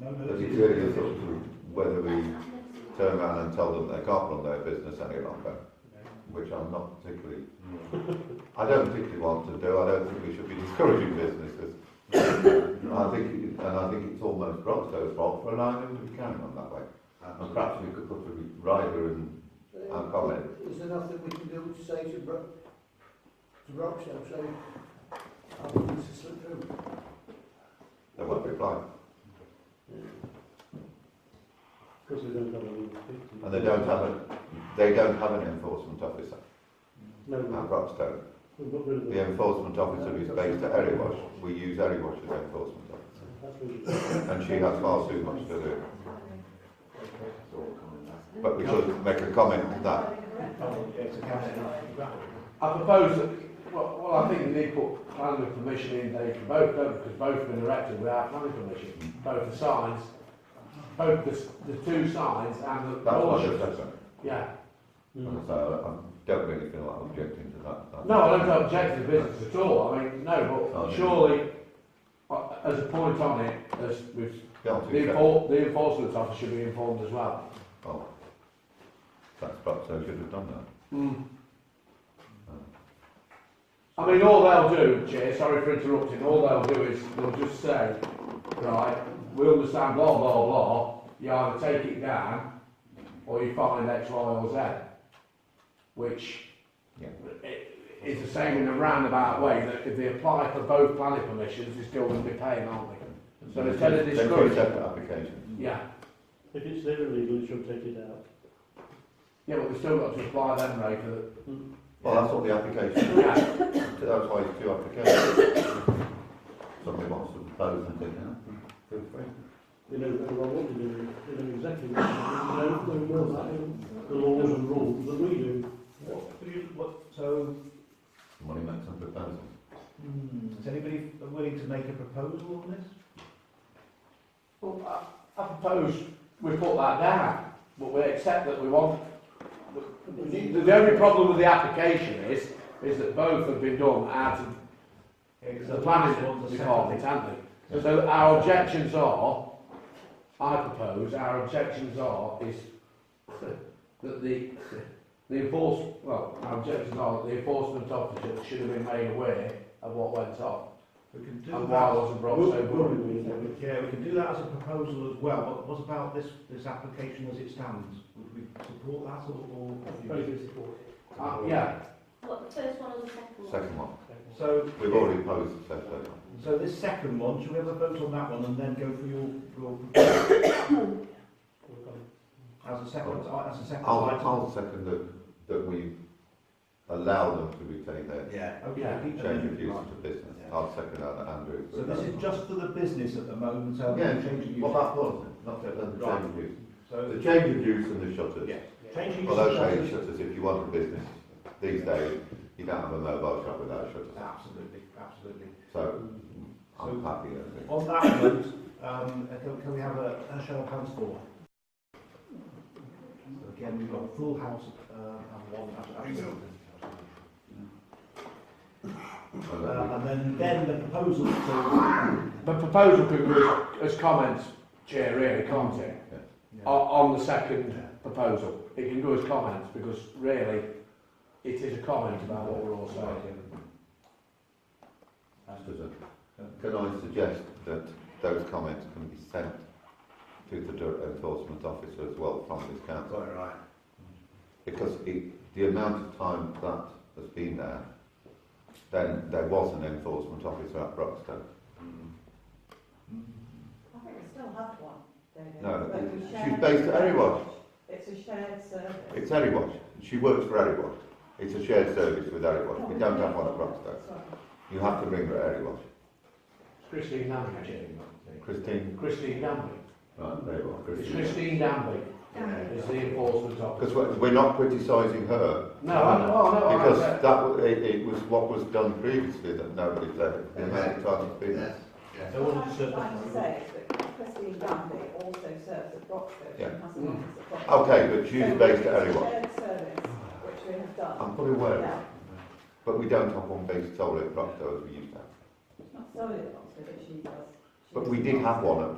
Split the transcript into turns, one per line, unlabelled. really is up to whether we turn around and tell them they can't run their business any longer, which I'm not particularly, I don't particularly want to do. I don't think we should be discouraging businesses. I think, it- and I think it's almost Roxo's fault for allowing them to be carrying on that way. And perhaps we could put a rider in, and comment.
Is there nothing we can do to say to Bro, to Rochdale, say, I want this to slip through?
They won't reply.
Because they don't have a legal fee.
And they don't have a, they don't have an enforcement officer
No,
at
no,
Roxton.
we've got rid of
The
them.
enforcement officer is based at Erewash. We use Erewash as enforcement officer.
That's really-
And she has far too much to do. But we should make a comment to that.
I propose that, well, well, I think they need to put planning permission in there for both, don't they? because both have been erected without planning permission. Both the signs, both the, s- the two signs and the
That's what I
bullshutters.
said.
Yeah.
Mm.
So I don't really feel like objecting to that.
No, I don't object to the business at all. I mean, no,
Oh,
but
yeah.
surely, uh, as a point on it, as we've,
Yeah,
the,
two seconds.
enfor- the enforcement officer should be informed as well.
Oh, that's perhaps I should have done that.
Hmm. I mean, all they'll do, Chair, sorry for interrupting, all they'll do is they'll just say, right, we understand blah, blah, blah, you either take it down or you find X, Y or Z. Which
Yeah.
i- is the same in a roundabout way that if they apply for both planning permissions, they're still going to be paying, aren't they? So instead of
They're two
discouraging,
separate applications.
yeah,
If it's there illegal, you should take it out.
yeah, but they've still got to apply them, Ray, for the,
Well, that's what the application,
yeah,
that's why it's two applications. Somebody wants to propose and do Feel free.
They know what they want, what they do, they know exactly what they do, they know very well that, in the laws and rules that we do.
What, do you, what, so,
Somebody make some proposal.
hmm, is anybody willing to make a proposal on this?
well, I, I propose we put that down, but we accept that we want, the, the only problem with the application is, is that both have been done out of the planning department, haven't they? So our objections are, I propose, our objections are, is that the, the enforce, well, our objections are that the enforcement officer should have been made aware of what went on,
We can do
and why
that.
wasn't brought so good.
Yeah, we can do that as a proposal as well, but what about this, this application as it stands? Would we support that or? or-
Uh, yeah,
What, the first one or the second one?
Second one.
So,
We've already posed the second one.
so this second one, should we have a vote on that one and then go for your, your proposal as a second, uh, as a second
I'll,
item?
I'll second that, that we allow them to retain their
Yeah.
Yeah.
Okay.
change of use of business. I'll second that, Andrew.
So this is just for the business at the moment, so
Yeah,
we're changing
Well,
use.
that was, not the the change of use.
So
The change of use and the shutters.
Yeah. changing use.
Well,
of
okay,
shelters-
shutters, if you want a business, these days, you don't have a mobile shop without shutters.
Absolutely, absolutely.
So, I'm
So-
happy with it.
On that note, um, can, can we have a, a show of hands for? So again, we've got a full house, uh, and one absent.
And
Uh,
then
and then, then the proposal to,
the proposal could be as comments, Chair, really, can't it?
yeah,
On, on the second proposal, it can go as comments, because really, it is a comment about what we're all saying.
we- just as a- Can I suggest that those comments can be sent to the dir- enforcement officer as well from this council?
Quite right.
because it, the amount of time that has been there, then there was an enforcement officer at Broxton.
Mm.
I think we still have one. don't we?
No,
But we
she's
share-
based at Erewash.
It's a shared service.
It's Erewash. She works for Erewash. It's a shared service with Erewash. We don't have one at Broxton.
Sorry.
You have to ring her at Erewash.
Christine Lambie, Chair.
Christine,
Christine Lambie.
right, there you are,
It's
Christine.
Christine Lambie.
Yeah.
It's the enforcement
Because
officer.
we're, we're not criticising her,
No, I know, oh, no, I
because
know.
that wa- it, it was what was done previously that nobody said. The amount of time it's been there.
So what
What
did you
I'm
say?
trying to say is that Christine Lambie also serves at Broxton
Yeah.
and has an office at Broxton.
Okay, but she's based at
So
Erewash.
it's a shared service, which we have done.
I'm fully aware of that.
Yeah,
But we don't have one based solely at Broxton as we used to have.
not solely at Broxton, but she does. She
But
does
we did have one at